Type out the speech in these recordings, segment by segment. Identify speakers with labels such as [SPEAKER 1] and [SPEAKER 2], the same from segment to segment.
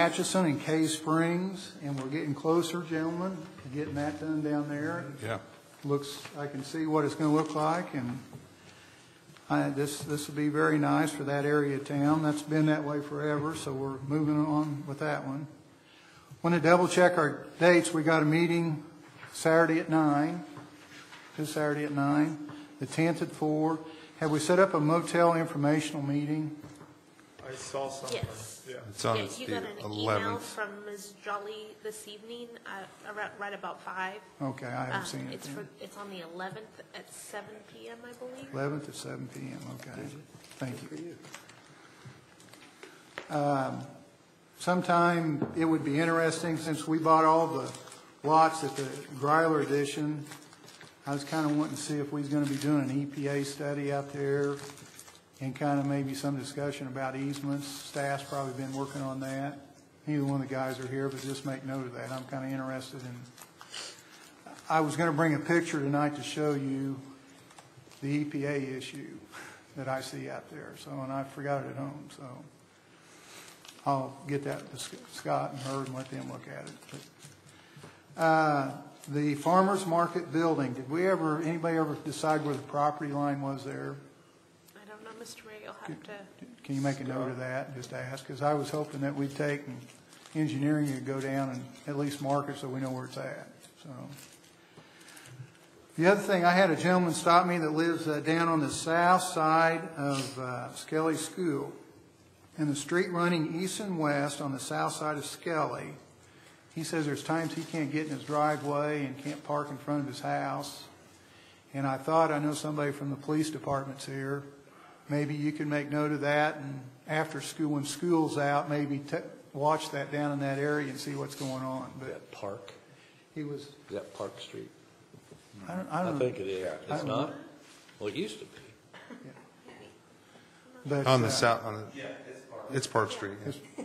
[SPEAKER 1] Atchison and Cay Springs, and we're getting closer, gentlemen, to getting that done down there.
[SPEAKER 2] Yeah.
[SPEAKER 1] Looks, I can see what it's going to look like, and I, this, this will be very nice for that area of town. That's been that way forever, so we're moving on with that one. Want to double check our dates. We got a meeting Saturday at nine, this Saturday at nine, the tenth at four. Have we set up a motel informational meeting?
[SPEAKER 3] I saw something,
[SPEAKER 4] Yes.
[SPEAKER 3] yeah.
[SPEAKER 2] It's on
[SPEAKER 4] Yeah,
[SPEAKER 2] the
[SPEAKER 4] you got an email
[SPEAKER 2] 11th.
[SPEAKER 4] from Ms. Jolly this evening, uh, around, right about five.
[SPEAKER 1] Okay, I haven't
[SPEAKER 4] Um,
[SPEAKER 1] seen it.
[SPEAKER 4] It's for, it's on the eleventh at seven PM, I believe.
[SPEAKER 1] Eleventh at seven PM, okay. Thank you. Um, Sometime, it would be interesting, since we bought all the lots at the Greiler addition, I was kind of wanting to see if we was going to be doing an EPA study out there and kind of maybe some discussion about easements. Staff's probably been working on that. Neither one of the guys are here, but just make note of that. I'm kind of interested in, I was going to bring a picture tonight to show you the EPA issue that I see out there, so, and I forgot it at home, so I'll get that to Sc- Scott and Herb and let them look at it. But, uh, The farmer's market building, did we ever, anybody ever decide where the property line was there?
[SPEAKER 4] I don't know, Mr. Ray, you'll have to,
[SPEAKER 1] Can you make a note of that, just ask, because I was hoping that we'd take and engineering would go down and at least mark it so we know where it's at, so. The other thing, I had a gentleman stop me that lives uh, down on the south side of uh, Skelly School. And the street running east and west on the south side of Skelly, he says there's times he can't get in his driveway and can't park in front of his house. And I thought, I know somebody from the police department's here, maybe you can make note of that, and after school, when school's out, maybe t- watch that down in that area and see what's going on.
[SPEAKER 5] Is
[SPEAKER 1] But
[SPEAKER 5] that Park?
[SPEAKER 1] he was,
[SPEAKER 5] Is that Park Street?
[SPEAKER 1] I don't, I
[SPEAKER 5] I
[SPEAKER 1] don't.
[SPEAKER 5] think it is.
[SPEAKER 1] I
[SPEAKER 5] It's
[SPEAKER 1] don't
[SPEAKER 5] not?
[SPEAKER 1] know.
[SPEAKER 5] Well, it used to be.
[SPEAKER 1] But,
[SPEAKER 2] On
[SPEAKER 1] uh,
[SPEAKER 2] the south, on the. Yeah, it's Park. Street, yeah.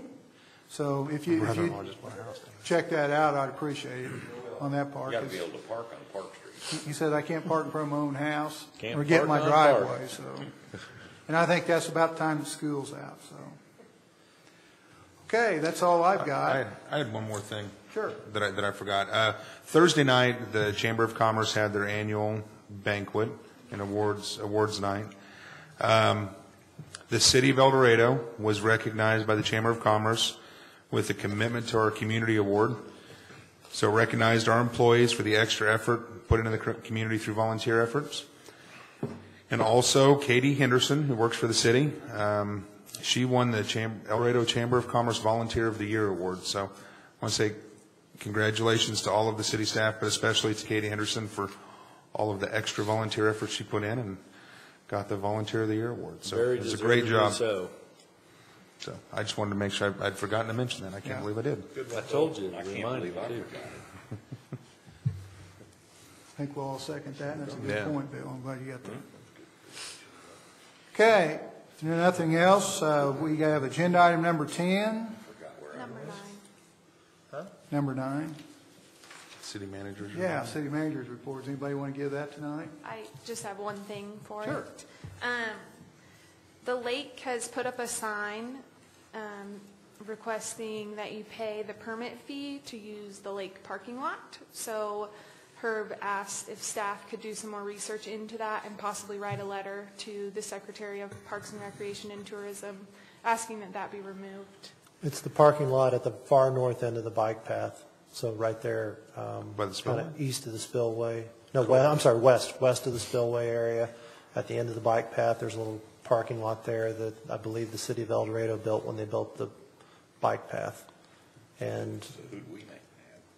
[SPEAKER 1] So if
[SPEAKER 2] My
[SPEAKER 1] you, if
[SPEAKER 2] brother-in-law
[SPEAKER 1] you
[SPEAKER 2] just bought a house there.
[SPEAKER 1] check that out, I'd appreciate it on that part.
[SPEAKER 5] You got to be able to park on Park Street.
[SPEAKER 1] He said, I can't park in front of my own house
[SPEAKER 5] Can't
[SPEAKER 1] or get in my
[SPEAKER 5] park on a park."
[SPEAKER 1] driveway, so. And I think that's about the time the school's out, so. Okay, that's all I've
[SPEAKER 2] I,
[SPEAKER 1] got.
[SPEAKER 2] I had one more thing.
[SPEAKER 1] Sure.
[SPEAKER 2] That I, that I forgot. Uh, Thursday night, the Chamber of Commerce had their annual banquet and awards, awards night. Um, the city of El Dorado was recognized by the Chamber of Commerce with the Commitment to Our Community Award. So recognized our employees for the extra effort put into the cr- community through volunteer efforts. And also Katie Henderson, who works for the city, um, she won the Cham- El Dorado Chamber of Commerce Volunteer of the Year Award. So I want to say congratulations to all of the city staff, but especially to Katie Henderson for all of the extra volunteer efforts she put in and got the Volunteer of the Year Award. So
[SPEAKER 5] Very
[SPEAKER 2] it was a great
[SPEAKER 5] deservedly
[SPEAKER 2] job.
[SPEAKER 5] so.
[SPEAKER 2] So I just wanted to make sure, I- I'd forgotten to mention that. I
[SPEAKER 1] Yeah.
[SPEAKER 2] can't believe I did.
[SPEAKER 5] I told you,
[SPEAKER 6] I can't
[SPEAKER 5] reminded
[SPEAKER 6] believe I
[SPEAKER 5] you.
[SPEAKER 6] forgot.
[SPEAKER 1] I think we'll all second that, and that's a good
[SPEAKER 2] Yeah.
[SPEAKER 1] point, Bill. I'm glad you got that. Okay, if there's nothing else, uh, we have agenda item number 10,
[SPEAKER 4] number nine.
[SPEAKER 1] number nine.
[SPEAKER 2] City manager.
[SPEAKER 1] Yeah, city managers reports. Anybody want to give that tonight?
[SPEAKER 7] I just have one thing for it.
[SPEAKER 1] Sure.
[SPEAKER 7] Um, The lake has put up a sign um, requesting that you pay the permit fee to use the lake parking lot. So Herb asked if staff could do some more research into that and possibly write a letter to the Secretary of Parks and Recreation and Tourism asking that that be removed.
[SPEAKER 8] It's the parking lot at the far north end of the bike path, so right there. um,
[SPEAKER 2] By the spillway?
[SPEAKER 8] kinda East of the spillway, no, we- I'm sorry, west, west of the spillway area, at the end of the bike path, there's a little parking lot there that I believe the city of El Dorado built when they built the bike path. And
[SPEAKER 6] Who'd we make?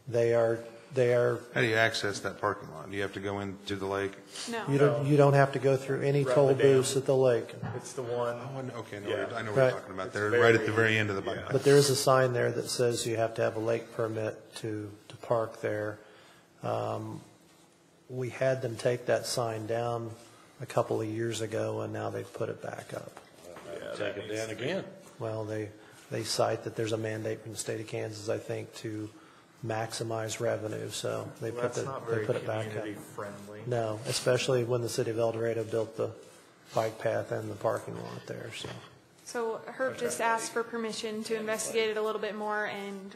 [SPEAKER 8] they are, they are,
[SPEAKER 2] How do you access that parking lot? Do you have to go into the lake?
[SPEAKER 7] No.
[SPEAKER 8] you don't, you don't have to go through any
[SPEAKER 3] Right,
[SPEAKER 8] toll
[SPEAKER 3] the dam.
[SPEAKER 8] booths at the lake.
[SPEAKER 3] It's the one,
[SPEAKER 2] Oh, I know- okay, I know what you're- I know what
[SPEAKER 8] Right.
[SPEAKER 2] you're talking about. They're right at the very end of the bike path.
[SPEAKER 8] But there is a sign there that says you have to have a lake permit to, to park there. Um, We had them take that sign down a couple of years ago, and now they've put it back up.
[SPEAKER 5] Take it down again.
[SPEAKER 8] Well, they, they cite that there's a mandate from the state of Kansas, I think, to maximize revenue, so they put
[SPEAKER 3] that's
[SPEAKER 8] the,
[SPEAKER 3] not
[SPEAKER 8] they
[SPEAKER 3] very
[SPEAKER 8] put it back up.
[SPEAKER 3] community friendly.
[SPEAKER 8] No, especially when the city of El Dorado built the bike path and the parking lot there, so.
[SPEAKER 7] So Herb just asked for permission to investigate it a little bit more and